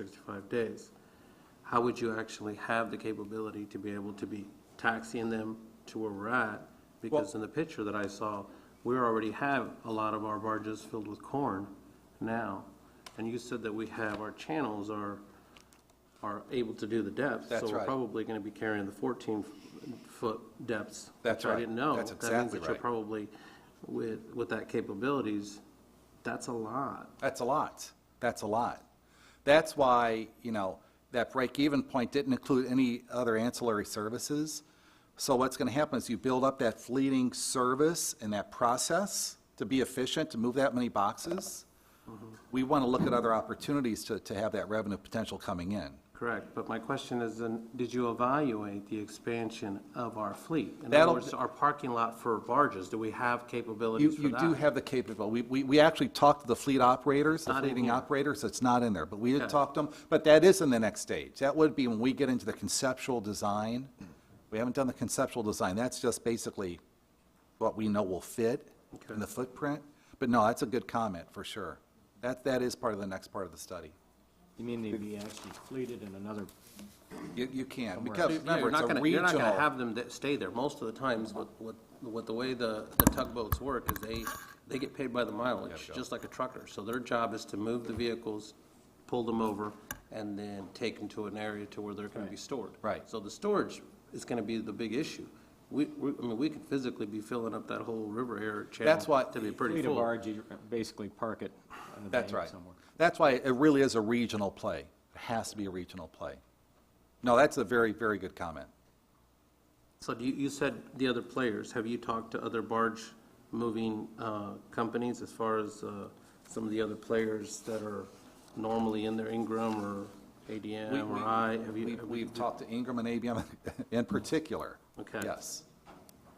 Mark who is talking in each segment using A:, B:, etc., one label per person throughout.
A: 365 days, how would you actually have the capability to be able to be taxiing them to where we're at? Because in the picture that I saw, we already have a lot of our barges filled with corn now. And you said that we have, our channels are, are able to do the depth.
B: That's
A: So we're
B: right.
A: probably going to be carrying the 14-foot depths. which
B: That's
A: I
B: right.
A: didn't know.
B: That's
A: That means
B: exactly
A: that you're
B: right.
A: probably, with, with that capabilities, that's a lot.
B: That's a lot. That's a lot. That's why, you know, that break-even point didn't include any other ancillary services. So what's going to happen is you build up that fleeting service and that process to be efficient, to move that many boxes. We want to look at other opportunities to, to have that revenue potential coming in.
A: Correct, but my question is, then, did you evaluate the expansion of our fleet? In other
B: That'll-
A: words, our parking lot for barges, do we have
B: You,
A: capabilities for
B: you
A: that?
B: do have the capability. We, we, we actually talked to the fleet operators, the
A: Not in
B: fleeting
A: here.
B: operators, it's not in there, but we did
A: Okay.
B: talk to them. But that is in the next stage. That would be when we get into the conceptual design. We haven't done the conceptual design. That's just basically what we know will fit in
A: Okay.
B: the footprint. But no, that's a good comment, for sure. That, that is part of the next part of the study.
C: You mean they'd be actually fleeted in another,
B: You, you can't,
A: So,
B: because
A: yeah, You're
B: remember, it's
A: not
B: a
A: gonna, you're not gonna
B: regional.
A: have them that stay there. Most of the times, with, with, with the way the, the tugboats work, is they, they get paid by the mileage, just like a trucker. So their job is to move the vehicles, pull them over, and then take them to an area to where they're gonna be stored.
B: Right.
A: So the storage is gonna be the big issue. We, we, I mean, we could physically be filling up that whole river here channel.
B: That's why-
A: To be pretty
C: fleet of
A: full.
C: barge, you basically park it on the bank
B: That's right.
C: somewhere?
B: That's why it really is a regional play. It has to be a regional play. No, that's a very, very good comment.
A: So do you, you said the other players, have you talked to other barge moving uh, companies as far as uh, some of the other players that are normally in there, Ingram or
B: We-
A: ADM or
B: we-
A: I? Uh, Have you-
B: we-
A: have you-
B: We've talked to Ingram and ABM in particular.
A: Okay.
B: Yes,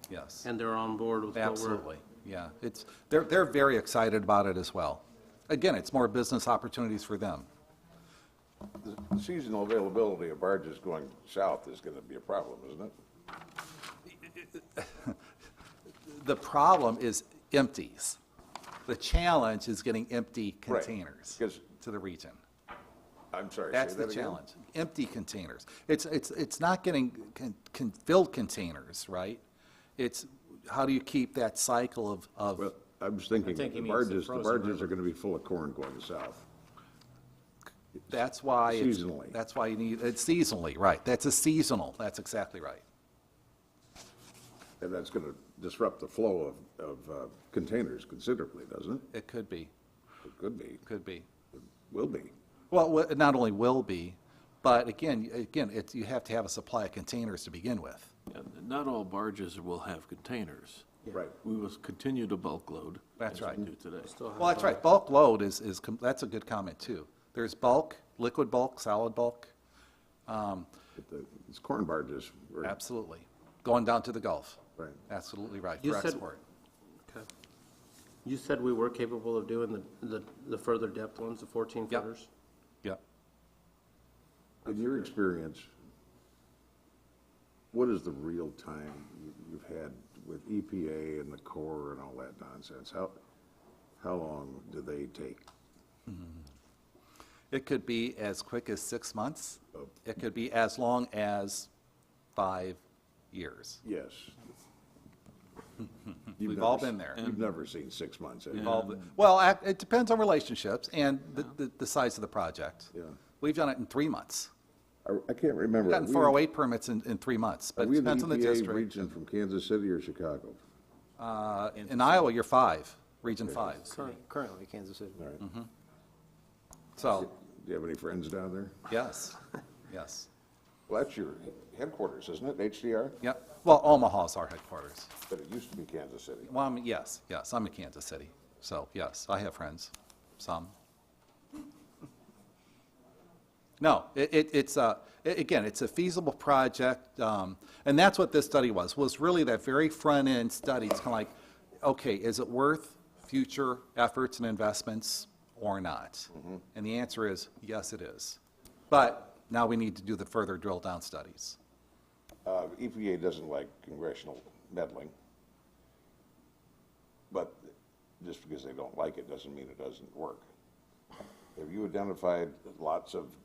B: yes.
A: And they're on board with what we're?
B: Absolutely, yeah. It's, they're, they're very excited about it as well. Again, it's more business opportunities for them.
D: The Seasonal availability of barges going south is going to be a problem, isn't it?
B: The problem is empties. The challenge is getting empty
D: Right,
B: containers
D: 'cause-
B: to the region.
D: I'm sorry, say
B: That's the
D: that again?
B: challenge, empty containers. It's, it's, it's not getting con- con- filled containers, right? It's, how do you keep that cycle of, of
D: Well, I was
C: I
D: thinking,
C: think he means
D: the
C: the
D: barges, the
C: frozen
D: barges are going to be full of corn going south.
B: That's why. it's-
D: Seasonally.
B: That's why you need, it's seasonally, right. That's a seasonal, that's exactly right.
D: And that's going to disrupt the flow of, of uh, containers considerably, doesn't it?
B: It could be,
D: It could be,
B: could be.
D: will be.
B: Well, wha- it not only will be, but again, again, it's, you have to have a supply of containers to begin with.
E: And Not all barges will have containers.
D: Right.
E: We will continue to bulk load.
B: That's
E: as
B: right.
E: we do today.
B: Well, that's right, bulk load is, is, com- that's a good comment too. There's bulk, liquid bulk, solid bulk,
D: But the- These corn barges were.
B: absolutely. Going down to the Gulf.
D: Right.
B: Absolutely right,
A: You
B: for
A: said-
B: export.
A: Okay. You said we were capable of doing the, the, the further depth ones, the 14
B: Yep.
A: footers?
B: Yep.
D: In your experience, what is the real time you- you've had with EPA and the Corps and all that nonsense? How, how long do they take?
B: It could be as quick as six months.
D: Oh.
B: It could be as long as five years.
D: Yes. You've
B: We've
D: never
B: all
D: s-
B: been there.
D: You've never seen six months. have you?
B: All the- Well, ac- it depends on relationships and the- the, the size of the project.
D: Yeah.
B: We've done it in three months.
D: I I can't remember.
B: We've gotten
D: Are we-
B: 408 permits in, in three months,
D: Are
B: but it
D: we in the E
B: depends on the
D: EPA
B: district.
D: region from Kansas City or Chicago?
B: Uh, In Iowa, you're five, Region 5.
C: Currently, Kansas City.
D: All right.
B: Mm-hmm.
D: Do
B: So,
D: you have any friends down there?
B: yes, yes.
D: Well, that's your headquarters, isn't it, HDR?
B: Yep. Well, Omaha's our headquarters.
D: But it used to be Kansas City.
B: Well, I'm, yes, yes, I'm in Kansas City. So, yes, I have friends, some. No, it, it, it's a, a- again, it's a feasible project, um, and that's what this study was, was really that very front-end study. It's kind of like, okay, is it worth future efforts and investments or not? And the answer is, yes, it is. But now we need to do the further drill-down studies.
D: Uh, EPA doesn't like congressional meddling. But just because they don't like it doesn't mean it doesn't work. Have you identified lots of